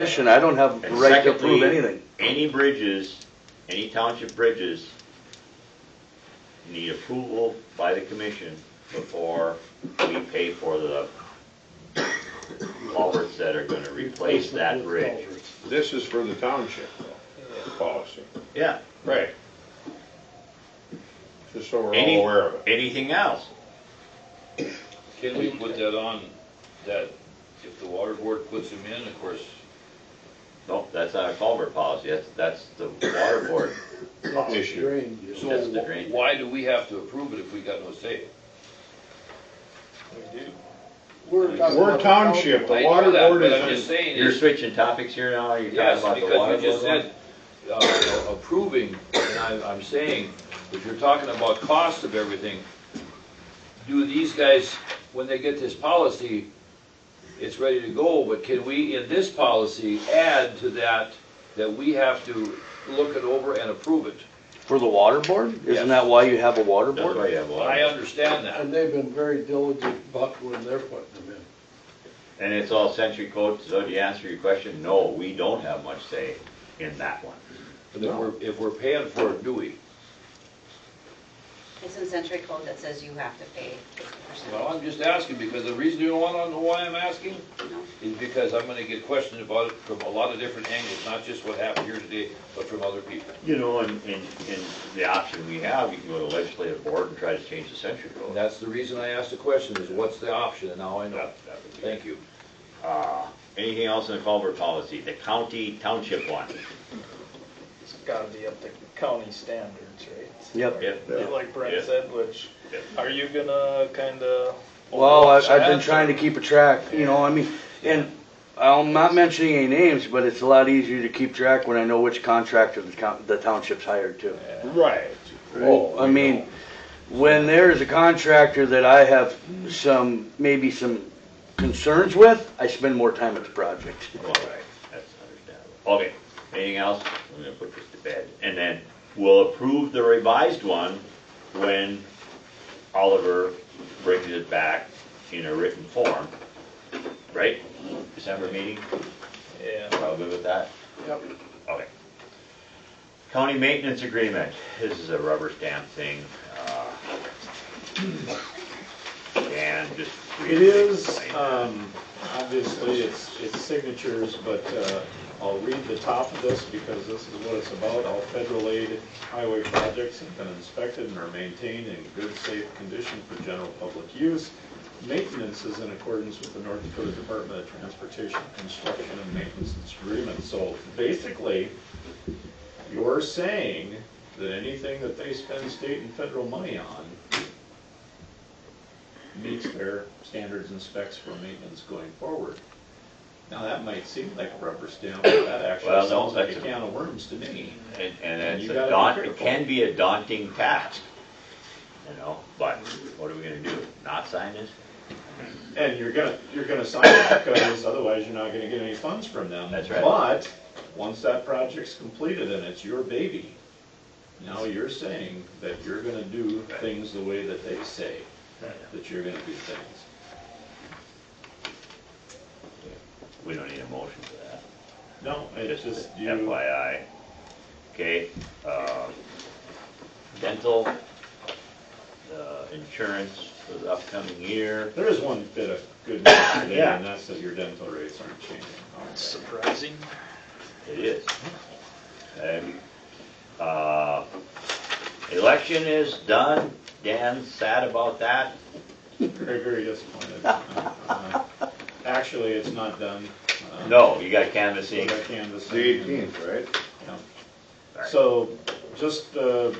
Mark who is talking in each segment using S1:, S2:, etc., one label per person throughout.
S1: commission, I don't have the
S2: And
S1: right to approve
S2: secondly,
S1: anything.
S2: Any bridges, any township bridges need approval by the commission before we pay for the culverts that are gonna replace that bridge.
S3: This is for the township, though, the policy.
S2: Yeah,
S3: Right. Just so we're
S2: Any-
S3: all aware of it.
S2: anything else?
S4: Can we put that on, that if the water board puts them in, of course,
S2: No, that's not a culvert policy, that's, that's the water board.
S3: Issue.
S4: so
S2: That's the drain.
S4: wh- why do we have to approve it if we got no say?
S3: We're township,
S4: I
S3: the
S4: know
S3: water
S4: that,
S3: board
S4: But I'm
S3: is,
S4: just
S3: in-
S4: saying
S2: You're
S4: is,
S2: switching topics here now, you're talking
S4: yes,
S2: about the water.
S4: because we just
S2: board
S4: said, uh, approving, and I'm, I'm saying, if you're talking about cost of everything, do these guys, when they get this policy, it's ready to go, but can we, in this policy, add to that, that we have to look it over and approve it?
S1: For the water board?
S4: Yes.
S1: Isn't that why you have a water
S2: one? That's
S1: board?
S2: why you have water.
S4: I understand that.
S5: And they've been very diligent about when they're putting them in.
S2: And it's all century code, so to answer your question, no, we don't have much say in that one.
S4: But if we're, if we're paying for it, do we?
S6: It's in century code that says you have to pay fifty
S4: Well,
S6: percent.
S4: I'm just asking, because the reason you don't wanna know why I'm asking is because I'm gonna get questioned about it from a lot of different angles, not just what happened here today, but from other people.
S2: You know, and, and, and the option we have, you can go to legislative board and try to change the century
S4: And
S2: code.
S4: that's the reason I asked the question, is what's the option, and now I know.
S2: That- that would be-
S4: Thank you.
S2: Uh, anything else in the culvert policy, the county township one?
S7: It's gotta be up to county standards, right?
S1: Yep.
S7: Like
S2: Yeah.
S7: Brent said, which,
S2: Yeah.
S7: are you gonna kinda?
S1: Well, I- I've been
S7: overwatch
S1: trying to
S7: that?
S1: keep a track, you know, I mean, and I'm not mentioning any names, but it's a lot easier to keep track when I know which contractor the coun- the township's hired to.
S3: right.
S1: Oh, I mean, when there is a contractor that I have some, maybe some concerns with, I spend more time at the project.
S2: Well, right, that's understandable. Okay, anything else? I'm gonna put this to bed. And then we'll approve the revised one when Oliver brings it back in a written form, right? December meeting,
S7: Yeah.
S2: we're all good with that?
S5: Yep.
S2: Okay. County maintenance agreement, this is a rubber stamp thing. uh, And just. read
S8: It is,
S2: explain.
S8: um, obviously, it's, it's signatures, but, uh, I'll read the top of this because this is what it's about. All federal aid highway projects have been inspected and are maintained in good, safe condition for general public use. Maintenance is in accordance with the North Dakota Department of Transportation Construction and Maintenance Agreement. So basically, you're saying that anything that they spend state and federal money on meets their standards and specs for maintenance going forward. Now, that might seem like a rubber stamp, but that
S2: Well, no,
S8: actually sounds like a
S2: that's a-
S8: can of worms to me.
S2: And, and it's
S8: You
S2: a
S8: gotta be
S2: daunt, it
S8: careful.
S2: can be a daunting task, you know, but what are we gonna do? Not sign this?
S8: And you're gonna, you're gonna sign it because otherwise you're not gonna get any funds from them.
S2: That's right.
S8: But, once that project's completed and it's your baby, now you're saying that you're gonna do things the way that they say, that you're gonna do things.
S2: We don't need a motion for that.
S8: No, it's just
S2: Just
S8: you,
S2: FYI. Okay, uh, dental, uh, insurance for the upcoming year.
S8: there is one bit of good news today,
S2: Yeah.
S8: and that's that your dental rates aren't changing.
S7: Surprising.
S2: It is. And, uh, election is done. Dan's sad about that.
S8: Very, very disappointed. Uh, Actually, it's not done. Uh,
S2: No, you got
S8: we
S2: canvassing.
S8: got canvassing.
S3: The eighteenth, right?
S8: Yeah.
S2: Right.
S8: So, just, uh,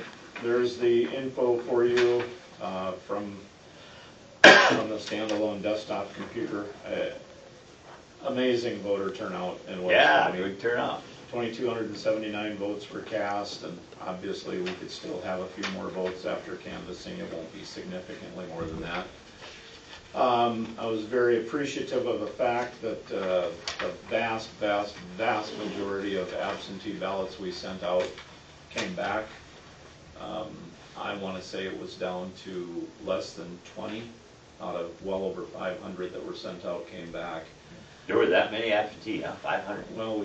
S8: there's the info for you, uh, from, from the standalone desktop computer. Uh, Amazing voter turnout in West
S2: Yeah,
S8: Covina.
S2: good turnout.
S8: 2,279 votes were cast, and obviously, we could still have a few more votes after canvassing. It won't be significantly more than that. Um, I was very appreciative of the fact that uh, the vast, vast, vast majority of absentee ballots we sent out came back. Um, I want to say it was down to less than 20 out of well over 500 that were sent out came back.
S2: There were that many absentee, huh? Five hundred?
S8: Well,